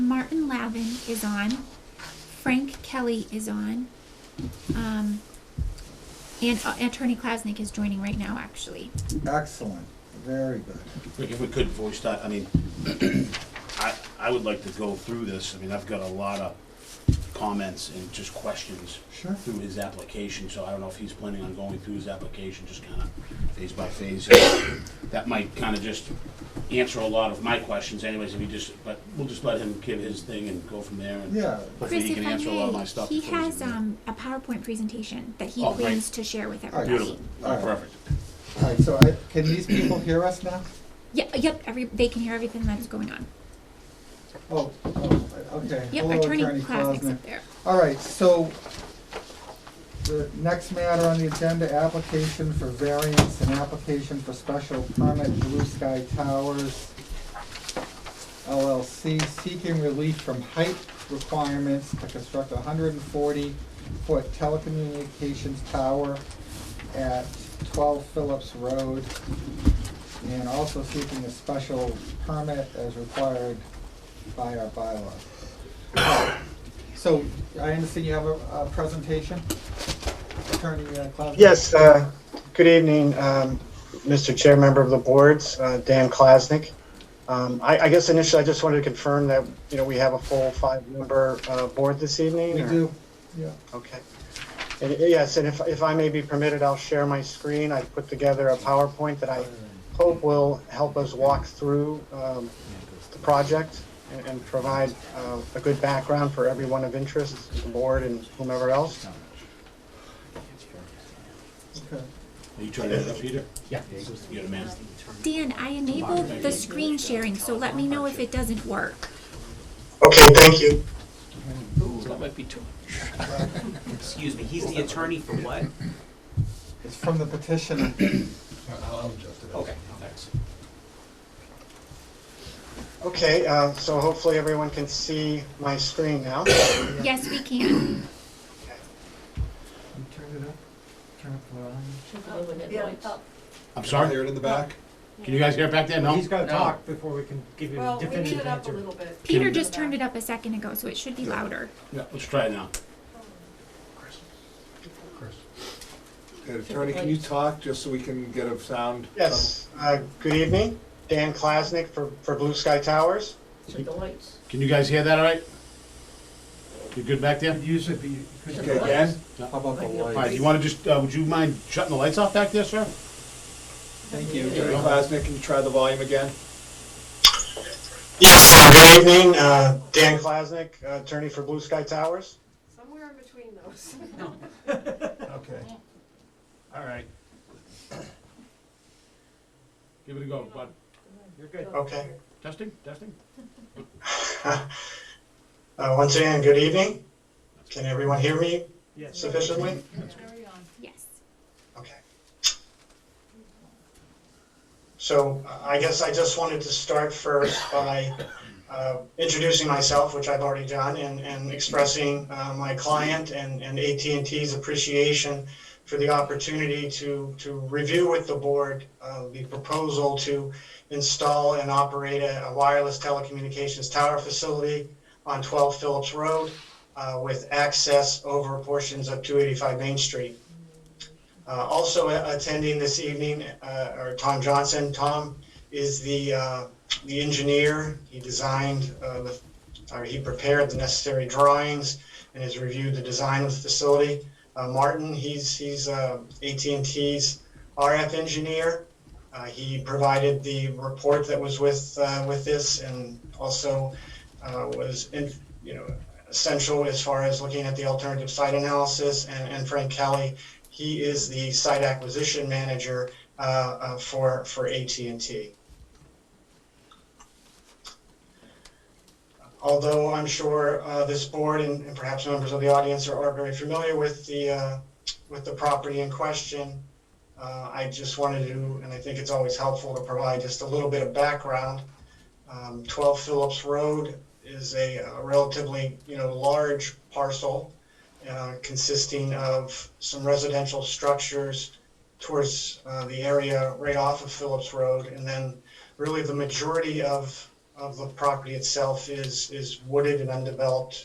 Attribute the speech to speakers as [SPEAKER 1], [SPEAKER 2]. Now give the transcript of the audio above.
[SPEAKER 1] Martin Lavin is on. Frank Kelly is on. Um, and uh, Attorney Klasnick is joining right now, actually.
[SPEAKER 2] Excellent, very good.
[SPEAKER 3] If we could voice that, I mean, I, I would like to go through this, I mean, I've got a lot of comments and just questions
[SPEAKER 2] Sure.
[SPEAKER 3] through his application, so I don't know if he's planning on going through his application, just kinda phase by phase. That might kinda just answer a lot of my questions anyways, if he just, but we'll just let him give his thing and go from there and
[SPEAKER 2] Yeah.
[SPEAKER 3] hopefully
[SPEAKER 1] Chris,
[SPEAKER 3] he
[SPEAKER 1] if
[SPEAKER 3] can
[SPEAKER 1] I
[SPEAKER 3] answer a lot of
[SPEAKER 1] may,
[SPEAKER 3] my stuff.
[SPEAKER 1] he
[SPEAKER 3] before he's
[SPEAKER 1] has
[SPEAKER 3] in there.
[SPEAKER 1] um, a PowerPoint presentation that he
[SPEAKER 3] Oh, great.
[SPEAKER 1] plans to share with everybody.
[SPEAKER 3] Beautiful,
[SPEAKER 2] All right.
[SPEAKER 3] perfect.
[SPEAKER 2] All right, so I, can these people hear us now?
[SPEAKER 1] Yeah, yep, every, they can hear everything that is going on.
[SPEAKER 2] Oh, oh, okay.
[SPEAKER 1] Yep,
[SPEAKER 2] Hello,
[SPEAKER 1] Attorney Klasnick's
[SPEAKER 2] Klasnick.
[SPEAKER 1] up there.
[SPEAKER 2] All right, so the next matter on the agenda, application for variance and application for special permit, Blue Sky Towers LLC, seeking relief from height requirements to construct a hundred and forty foot telecommunications tower at twelve Phillips Road, and also seeking a special permit as required by our bylaw. So I understand you have a, a presentation, Attorney uh, Klausner?
[SPEAKER 4] Yes, uh, good evening, um, Mr. Chair, member of the boards, uh, Dan Klasnick. Um, I I guess initially, I just wanted to confirm that, you know, we have a full five-member uh, board this evening?
[SPEAKER 2] We
[SPEAKER 4] or-
[SPEAKER 2] do, yeah.
[SPEAKER 4] Okay. And uh, yes, and if if I may be permitted, I'll share my screen. I put together a PowerPoint that I hope will help us walk through um, the project and- and provide uh, a good background for everyone of interest, the board and whomever else.
[SPEAKER 2] Okay.
[SPEAKER 3] Are you trying to, help Peter?
[SPEAKER 5] Yeah.
[SPEAKER 3] You're the man.
[SPEAKER 1] Dan, I enabled the screen sharing, so let me know if it doesn't work.
[SPEAKER 4] Okay, thank you.
[SPEAKER 5] So that might be too.
[SPEAKER 6] Excuse me, he's the attorney for what?
[SPEAKER 2] It's from the petitioner.
[SPEAKER 6] Okay, thanks.
[SPEAKER 4] Okay, uh, so hopefully everyone can see my screen now.
[SPEAKER 1] Yes, we can.
[SPEAKER 2] Turn it up, turn up the volume.
[SPEAKER 3] I'm sorry? Hear it in the back? Can you guys hear it back there? No?
[SPEAKER 7] He's gotta
[SPEAKER 5] No.
[SPEAKER 7] talk before we can give you a
[SPEAKER 8] Well, we need
[SPEAKER 7] definitive
[SPEAKER 8] it up a
[SPEAKER 7] answer.
[SPEAKER 8] little bit.
[SPEAKER 1] Peter just turned it up a second ago, so it should be louder.
[SPEAKER 3] Yeah, let's try it now.
[SPEAKER 9] Uh, Attorney, can you talk, just so we can get a sound?
[SPEAKER 4] Yes, uh, good evening, Dan Klasnick for, for Blue Sky Towers.
[SPEAKER 8] To the lights.
[SPEAKER 3] Can you guys hear that all right? You good back there?
[SPEAKER 7] Use it, but you could.
[SPEAKER 9] Okay, again?
[SPEAKER 2] How about the
[SPEAKER 3] All right, do
[SPEAKER 2] lights?
[SPEAKER 3] you want to just, uh, would you mind shutting the lights off back there, sir?
[SPEAKER 2] Thank you.
[SPEAKER 9] Attorney Klasnick, can you try the volume again?
[SPEAKER 4] Yes, uh, good evening, uh, Dan Klasnick, uh, attorney for Blue Sky Towers.
[SPEAKER 8] Somewhere in between those.
[SPEAKER 9] Okay.
[SPEAKER 7] All right,
[SPEAKER 3] Give it a go, bud.
[SPEAKER 7] you're good.
[SPEAKER 4] Okay,
[SPEAKER 3] Testing, testing?
[SPEAKER 4] uh, once again, good evening. Can everyone hear me
[SPEAKER 7] Yes.
[SPEAKER 4] sufficiently?
[SPEAKER 8] Carry on.
[SPEAKER 1] Yes.
[SPEAKER 4] Okay. So uh, I guess I just wanted to start first by uh, introducing myself, which I've already done, and, and expressing uh, my client and, and AT&T's appreciation for the opportunity to, to review with the board uh, the proposal to install and operate a a wireless telecommunications tower facility on 12 Phillips Road uh, with access over portions of 285 Main Street. Uh, also a- attending this evening uh, are Tom Johnson. Tom is the uh, the engineer. He designed uh, the, or he prepared the necessary drawings and has reviewed the design of the facility. Uh, Martin, he's he's uh, AT&T's RF engineer. Uh, he provided the report that was with uh, with this, and also uh, was in, you know essential as far as looking at the alternative site analysis. And, and Frank Kelly, he is the site acquisition manager uh, uh, for for AT and T. Although I'm sure uh, this board and, and perhaps members of the audience are, are very familiar with the uh, with the property in question, uh, I just wanted to, and I think it's always helpful to provide just a little bit of background. Um, 12 Phillips Road is a, a relatively you know large parcel uh, consisting of some residential structures towards uh, the area right off of Phillips Road, and then really the majority of uh, of the property itself is, is wooded and undeveloped